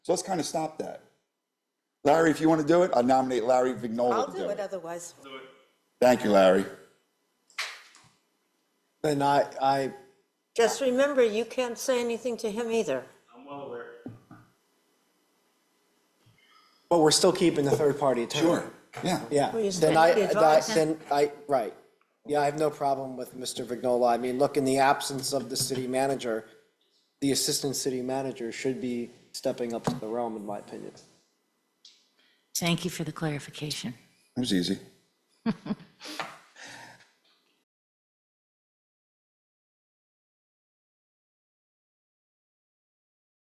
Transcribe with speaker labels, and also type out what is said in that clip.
Speaker 1: So let's kind of stop that. Larry, if you want to do it, I nominate Larry Vignola.
Speaker 2: I'll
Speaker 1: to
Speaker 2: do it otherwise.
Speaker 1: Thank you, Larry.
Speaker 3: And I, I,
Speaker 2: Just remember, you can't say anything to him either.
Speaker 3: but we're still keeping the third party attorney.
Speaker 1: Sure, yeah.
Speaker 3: Yeah,
Speaker 2: Well, you
Speaker 3: then
Speaker 2: said
Speaker 3: I,
Speaker 2: the
Speaker 3: that-
Speaker 2: advice.
Speaker 3: then I, right. Yeah, I have no problem with Mr. Vignola. I mean, look, in the absence of the city manager, the assistant city manager should be stepping up to the realm, in my opinion.
Speaker 4: Thank you for the clarification.
Speaker 1: It was easy.